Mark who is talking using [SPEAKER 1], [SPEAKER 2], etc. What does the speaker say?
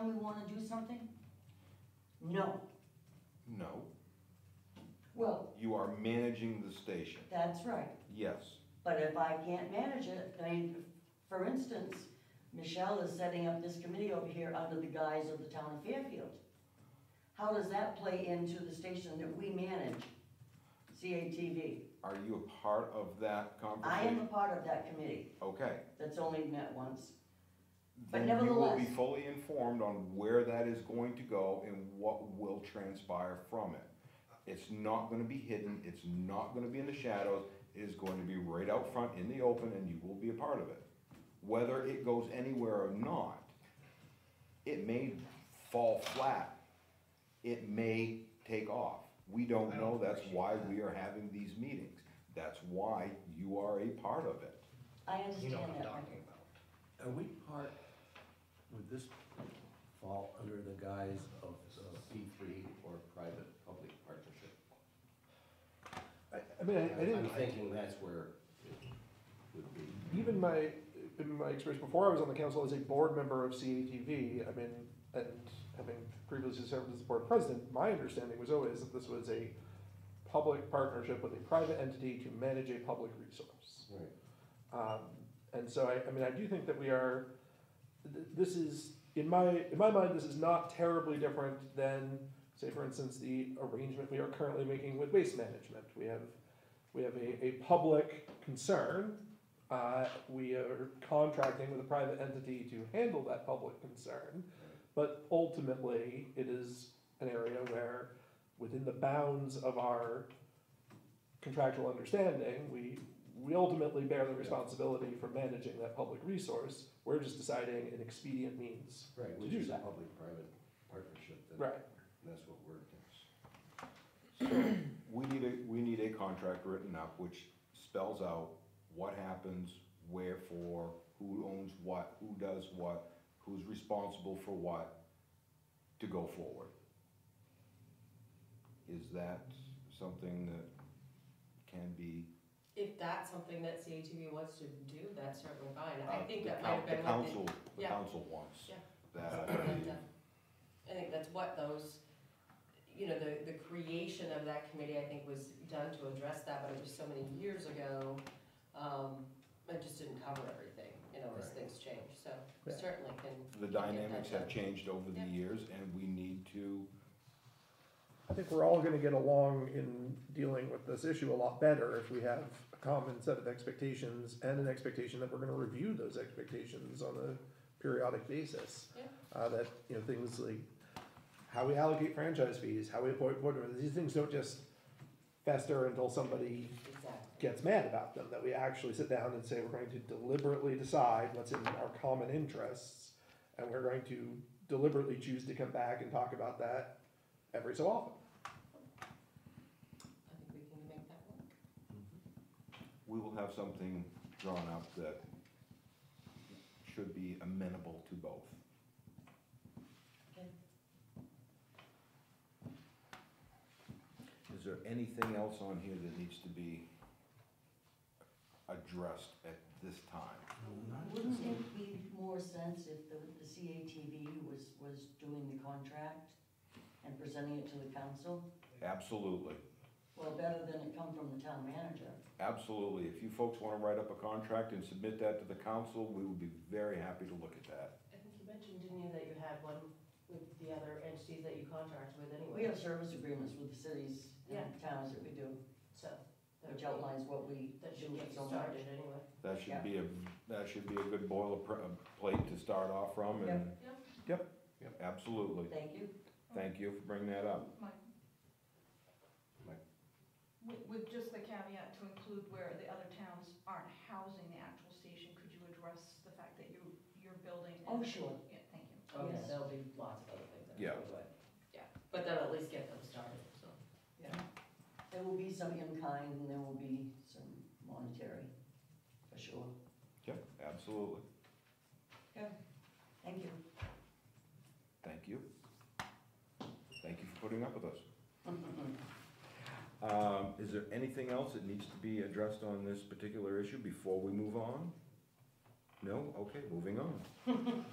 [SPEAKER 1] wanna do something?
[SPEAKER 2] No,
[SPEAKER 3] No,
[SPEAKER 2] well,
[SPEAKER 3] you are managing the station,
[SPEAKER 2] that's right.
[SPEAKER 3] yes.
[SPEAKER 2] But if I can't manage it, I mean, for instance, Michelle is setting up this committee over here under the guise of the town of Fairfield. How does that play into the station that we manage, CATV?
[SPEAKER 3] Are you a part of that
[SPEAKER 2] I am a
[SPEAKER 3] conversation?
[SPEAKER 2] part of that committee
[SPEAKER 3] Okay.
[SPEAKER 2] that's only met once. But
[SPEAKER 3] Then You will
[SPEAKER 2] nevertheless-
[SPEAKER 3] be fully informed on where that is going to go and what will transpire from it. It's not gonna be hidden, it's not gonna be in the shadows, it is going to be right out front in the open and you will be a part of it. Whether it goes anywhere or not, it may fall flat, it may take off. We don't know, that's why we are having these meetings, that's why you are a part of it.
[SPEAKER 2] I
[SPEAKER 4] You
[SPEAKER 2] understand
[SPEAKER 4] know what I'm
[SPEAKER 2] that.
[SPEAKER 4] talking about.
[SPEAKER 5] Are we part, would this fall under the guise of P three or private-public partnership?
[SPEAKER 6] I, I mean, I, I
[SPEAKER 5] I'm
[SPEAKER 6] didn't,
[SPEAKER 5] thinking that's where it would be.
[SPEAKER 6] even my, in my experience before I was on the council as a board member of CATV, I mean, and having previously served as the board president, my understanding was always that this was a public partnership with a private entity to manage a public resource.
[SPEAKER 5] Right.
[SPEAKER 6] Um, and so I, I mean, I do think that we are, th- this is, in my, in my mind, this is not terribly different than, say, for instance, the arrangement we are currently making with waste management. We have, we have a, a public concern. Uh, we are contracting with a private entity to handle that public concern. But ultimately, it is an area where, within the bounds of our contractual understanding, we, we ultimately bear the responsibility for managing that public resource. We're just deciding an expedient means.
[SPEAKER 5] Right,
[SPEAKER 6] To
[SPEAKER 5] which
[SPEAKER 6] do
[SPEAKER 5] is a
[SPEAKER 6] that.
[SPEAKER 5] public-private partnership. that-
[SPEAKER 6] Right.
[SPEAKER 5] That's what we're,
[SPEAKER 3] So, we need a, we need a contract written up which spells out what happens, where for, who owns what, who does what, who's responsible for what, to go forward. Is that something that can be?
[SPEAKER 7] If that's something that CATV wants to do, that's certainly fine. I
[SPEAKER 3] uh,
[SPEAKER 7] think
[SPEAKER 3] the
[SPEAKER 7] that might
[SPEAKER 3] coun-
[SPEAKER 7] have been
[SPEAKER 3] The
[SPEAKER 7] what
[SPEAKER 3] council, the
[SPEAKER 7] yeah.
[SPEAKER 3] council wants.
[SPEAKER 7] Yeah.
[SPEAKER 3] That,
[SPEAKER 7] they. I think that's what those, you know, the, the creation of that committee, I think, was done to address that, but it was so many years ago. Um, it just didn't cover everything, you know, as
[SPEAKER 5] Right.
[SPEAKER 7] things change, so
[SPEAKER 6] Yeah.
[SPEAKER 7] certainly can.
[SPEAKER 3] the dynamics have changed over the
[SPEAKER 7] Yeah.
[SPEAKER 3] years and we need to,
[SPEAKER 6] I think we're all gonna get along in dealing with this issue a lot better if we have a common set of expectations and an expectation that we're gonna review those expectations on a periodic basis.
[SPEAKER 7] Yeah.
[SPEAKER 6] Uh, that, you know, things like how we allocate franchise fees, how we appoint board members, these things don't just fester until somebody
[SPEAKER 7] Exactly.
[SPEAKER 6] gets mad about them, that we actually sit down and say, we're going to deliberately decide what's in our common interests, and we're going to deliberately choose to come back and talk about that every so often.
[SPEAKER 7] I think we can make that work.
[SPEAKER 3] we will have something drawn up that should be amenable to both. Is there anything else on here that needs to be addressed at this time?
[SPEAKER 2] Wouldn't it be more sense if the, the CATV was, was doing the contract and presenting it to the council?
[SPEAKER 3] Absolutely,
[SPEAKER 2] Well, better than it come from the town manager.
[SPEAKER 3] absolutely. If you folks wanna write up a contract and submit that to the council, we would be very happy to look at that.
[SPEAKER 7] I think you mentioned, didn't you, that you had one with the other entities that you contract with
[SPEAKER 2] We
[SPEAKER 7] anyway?
[SPEAKER 2] have service agreements with the cities and towns that we do,
[SPEAKER 7] So. that
[SPEAKER 2] which
[SPEAKER 7] would be-
[SPEAKER 2] outlines what we
[SPEAKER 7] That
[SPEAKER 2] do
[SPEAKER 7] should get you
[SPEAKER 2] so much.
[SPEAKER 7] started anyway.
[SPEAKER 3] That should be a, that should be a good boilerplate to start off from and.
[SPEAKER 7] Yep.
[SPEAKER 3] Yep, yep, absolutely.
[SPEAKER 2] Thank you.
[SPEAKER 3] Thank you for bringing that up.
[SPEAKER 8] Mike.
[SPEAKER 3] Mike.
[SPEAKER 8] With, with just the caveat to include where the other towns aren't housing the actual station, could you address the fact that you, you're building? and-
[SPEAKER 2] Oh, sure.
[SPEAKER 8] Yeah, thank you.
[SPEAKER 7] Oh, yeah,
[SPEAKER 2] Yes.
[SPEAKER 7] there'll be lots of other things that we
[SPEAKER 3] Yeah.
[SPEAKER 7] would, yeah, but that'll at least get them started, so.
[SPEAKER 2] There will be some in-kind and there will be some monetary, for sure.
[SPEAKER 3] Yep, absolutely.
[SPEAKER 2] Thank you.
[SPEAKER 3] Thank you. Thank you for putting up with us. Um, is there anything else that needs to be addressed on this particular issue before we move on? No? Okay, moving on.